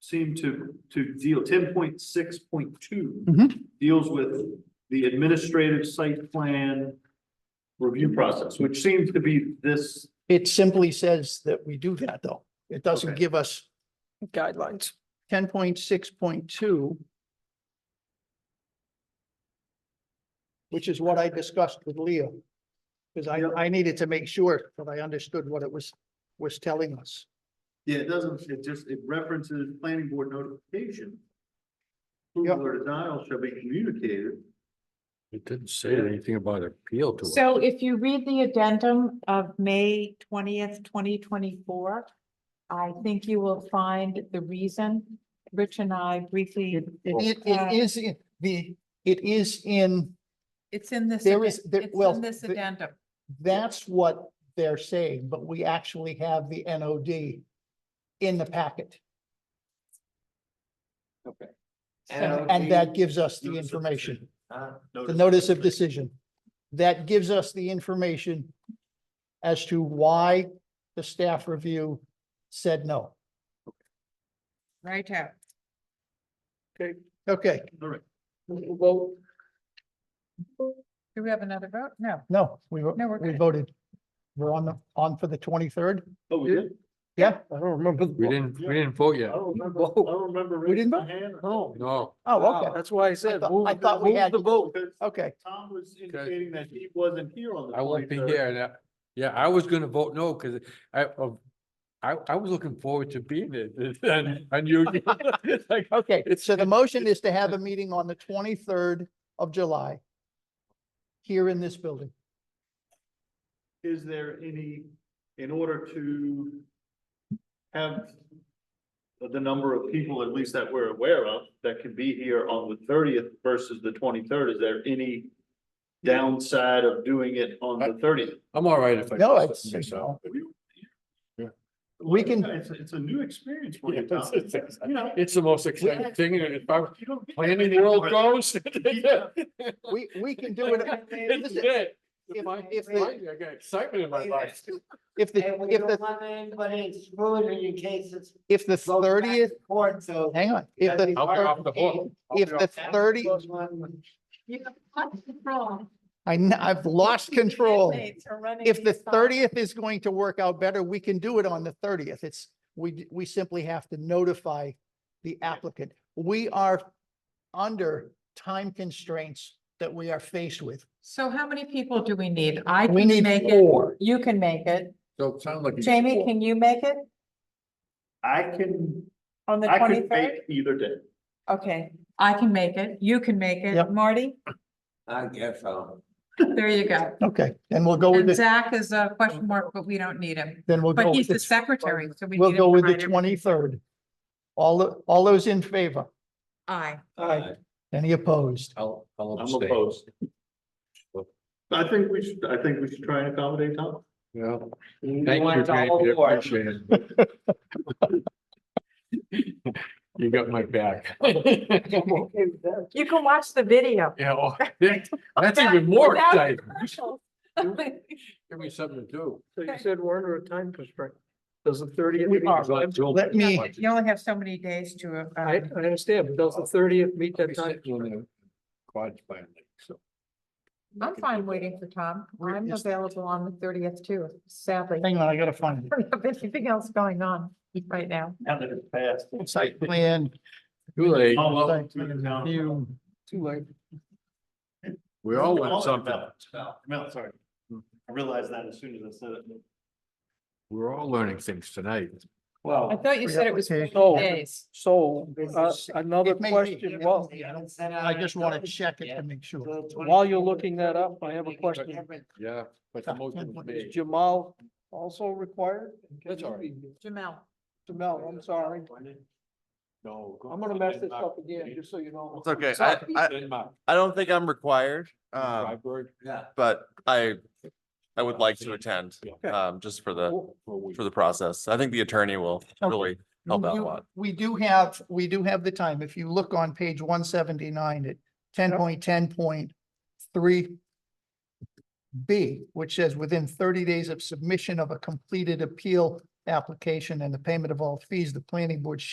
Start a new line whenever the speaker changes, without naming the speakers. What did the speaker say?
seem to, to deal, ten point six point two
Mhm.
deals with the administrative site plan review process, which seems to be this,
It simply says that we do that, though. It doesn't
Okay.
give us
guidelines.
ten point six point two. Which is what I discussed with Leo. Because I, I needed to make sure that I understood what it was, was telling us.
yeah, it doesn't, it just, it references planning board notification.
Yeah.
Approval or denial shall be communicated.
It didn't say anything about appeal to it.
So if you read the addendum of May twentieth, twenty twenty-four, I think you will find the reason. Rich and I briefly,
It, it it is, in the, it is in,
it's in this.
There is-
addend-
there-
it's
well,
in This
the-
addendum.
that's what they're saying, but we actually have the NOD in the packet.
Okay.
And and that gives us the
Notice of
information,
decision. Ah,
the
notice.
notice of decision. That gives us the information as to why the staff review said no.
Right out.
Okay,
All right,
Vote,
Do we have another vote? No.
no, we, vo-
No, we're
we
good.
voted. We're on the, on for the twenty-third.
oh, we did?
Yeah,
I don't remember. the
We
vote.
didn't, we didn't vote
I
yet.
don't remember, I don't remember.
We didn't vote?
raising my hand.
No.
No,
oh,
Wow,
okay,
That's why I said,
thought-
move,
I thought we
move
had-
the vote.
Because
okay.
Tom was indicating that he wasn't here on the.
I won't be
23rd.
here. and I- Yeah, I was gonna vote no, because I, uh, I, I was looking forward to being there. And, and you, it's like,
Okay,
It's-
so the motion is to have a meeting on the twenty-third of July. Here in this building.
Is there any, in order to have the number of people, at least that we're aware of, that can be here on the thirtieth versus the twenty-third, is there any downside of doing it on the thirtieth?
I'm all right if I.
No,
just
it's-
myself.
We can-
It's, it's a new experience for you, Tom.
It's
You know.
it's the most exciting thing, and if I'm
you don't get
planning
everything
world
right.
goes.
We, we can do it.
It's
listen,
it.
if-
My-
if the-
I got excitement in my life.
If the,
And we
if the,
don't want anybody excluded in case it's.
if the
goes back to
thirtieth,
Court, so.
hang on, if the,
I'll be
thir-
off the hook. I'll be
if the
off-
thirty,
Goes on.
I, kn- I've lost control.
Inmates are running
If the
these files.
thirtieth is going to work out better, we can do it on the thirtieth. It's, we, d- we simply have to notify the applicant. We are under time constraints that we are faced with.
So how many people do we need? I
We
can
need
make it.
four.
You can make it.
So it sounds like. you-
Jamie, can you make it
I can,
on the
I could
twenty-third?
make either day.
Okay, I can make it. You can make it.
Yep.
Marty,
I guess so.
there you go.
Okay, then we'll go with
And
the,
Zach is a question mark, but we don't need him.
then we'll go
But
with
he's the
the,
secretary, so we.
we'll
need him
go
to
with the
write everything.
twenty-third. All, the- all those in favor?
Aye.
Aye.
Any opposed?
I'll, I'll
I'm
abstain.
opposed. I think we should, I think we should try and accommodate Tom.
Yeah.
You
Thank you,
want the
Jamie.
whole
I
board.
appreciate it. You got my back.
You can watch the video.
Yeah, well, that- that's even more
Without
exciting.
commercials.
Give me something to do.
So you said we're under a time constraint. Does the thirtieth?
We are.
Let
Let me-
You only have so many days to,
I, I
uh,
understand, but does the thirtieth meet that time?
Quad finally, so.
I'm fine waiting for Tom.
Where
I'm
is-
available on the thirtieth too, sadly. I
Hang on, I gotta find it.
don't have anything else going on right now.
Now that it's passed.
Site plan.
Too late.
Oh, well,
Thank you.
now-
You-
Too late.
We all want something.
Mel, Mel, Mel, sorry. I realized that as soon as I said it.
We're all learning things tonight.
I
Well,
thought you said it was
Pre-application.
Oh.
days.
so, uh, another
It may be.
question, well,
I just want to check it to make sure.
while you're looking that up, I have a question.
Yeah, but the motion was
Is
made.
Jamal also required?
That's all right.
Jamel.
Jamal, Oh, I'm sorry.
No. go-
I'm gonna mess this up again, just so you know.
It's okay. I, I,
Denmark,
I don't think I'm required, um,
Freiburg,
Yeah.
but I, I would like to attend,
yeah,
um, just for the,
for a week.
for the process. I think the attorney will really help out a
You-
lot.
We do have, we do have the time. If you look on page one seventy-nine at ten point ten point three B, which says within thirty days of submission of a completed appeal application and the payment of all fees, the planning board